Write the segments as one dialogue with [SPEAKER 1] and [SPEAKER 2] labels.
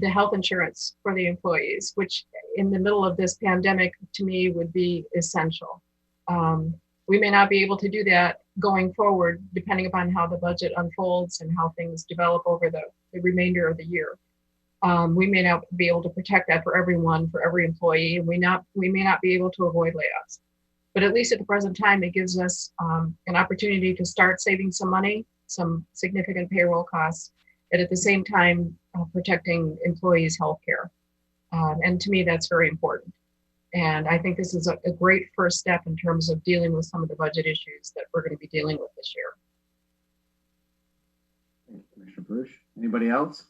[SPEAKER 1] the health insurance for the employees, which in the middle of this pandemic, to me, would be essential. Um, we may not be able to do that going forward, depending upon how the budget unfolds and how things develop over the, the remainder of the year. Um, we may not be able to protect that for everyone, for every employee, and we not we may not be able to avoid layoffs. But at least at the present time, it gives us um, an opportunity to start saving some money, some significant payroll costs, and at the same time uh, protecting employees' health care. Um, and to me, that's very important. And I think this is a, a great first step in terms of dealing with some of the budget issues that we're going to be dealing with this year.
[SPEAKER 2] Thank you, Commissioner Bush. Anybody else?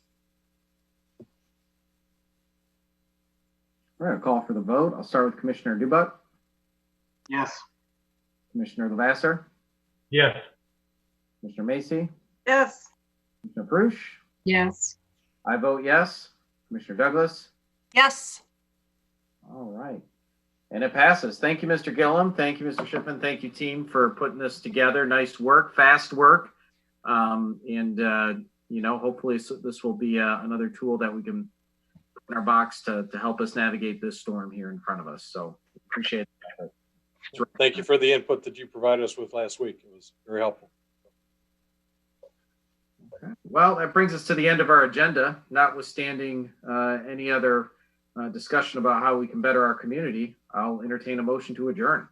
[SPEAKER 2] All right, I'll call for the vote. I'll start with Commissioner Dubak,
[SPEAKER 3] Yes.
[SPEAKER 2] Commissioner Lavasser,
[SPEAKER 3] Yes.
[SPEAKER 2] Commissioner Macy,
[SPEAKER 4] Yes.
[SPEAKER 2] Commissioner Perush.
[SPEAKER 1] Yes.
[SPEAKER 2] I vote yes. Commissioner Douglas.
[SPEAKER 4] Yes.
[SPEAKER 2] All right. And it passes. Thank you, Mr. Gillum. Thank you, Mr. Shipman. Thank you, team, for putting this together. Nice work, fast work. Um, and, uh, you know, hopefully so- this will be uh, another tool that we can put in our box to, to help us navigate this storm here in front of us. So appreciate it.
[SPEAKER 5] Thank you for the input that you provided us with last week. It was very helpful.
[SPEAKER 2] Well, that brings us to the end of our agenda, notwithstanding uh, any other uh, discussion about how we can better our community. I'll entertain a motion to adjourn.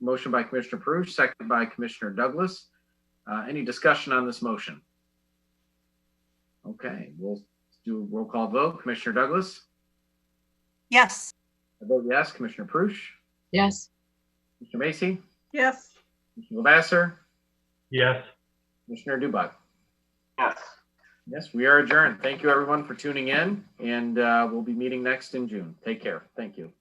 [SPEAKER 2] Motion by Commissioner Perush, second by Commissioner Douglas. Uh, Any discussion on this motion? Okay, we'll do a roll call vote. Commissioner Douglas?
[SPEAKER 4] Yes.
[SPEAKER 2] I vote yes. Commissioner Perush?
[SPEAKER 1] Yes.
[SPEAKER 2] Mr. Macy?
[SPEAKER 4] Yes.
[SPEAKER 2] Mr. Lavasser?
[SPEAKER 3] Yes.
[SPEAKER 2] Commissioner Dubak?
[SPEAKER 3] Yes.
[SPEAKER 2] Yes, we are adjourned. Thank you, everyone, for tuning in, and uh, we'll be meeting next in June. Take care. Thank you.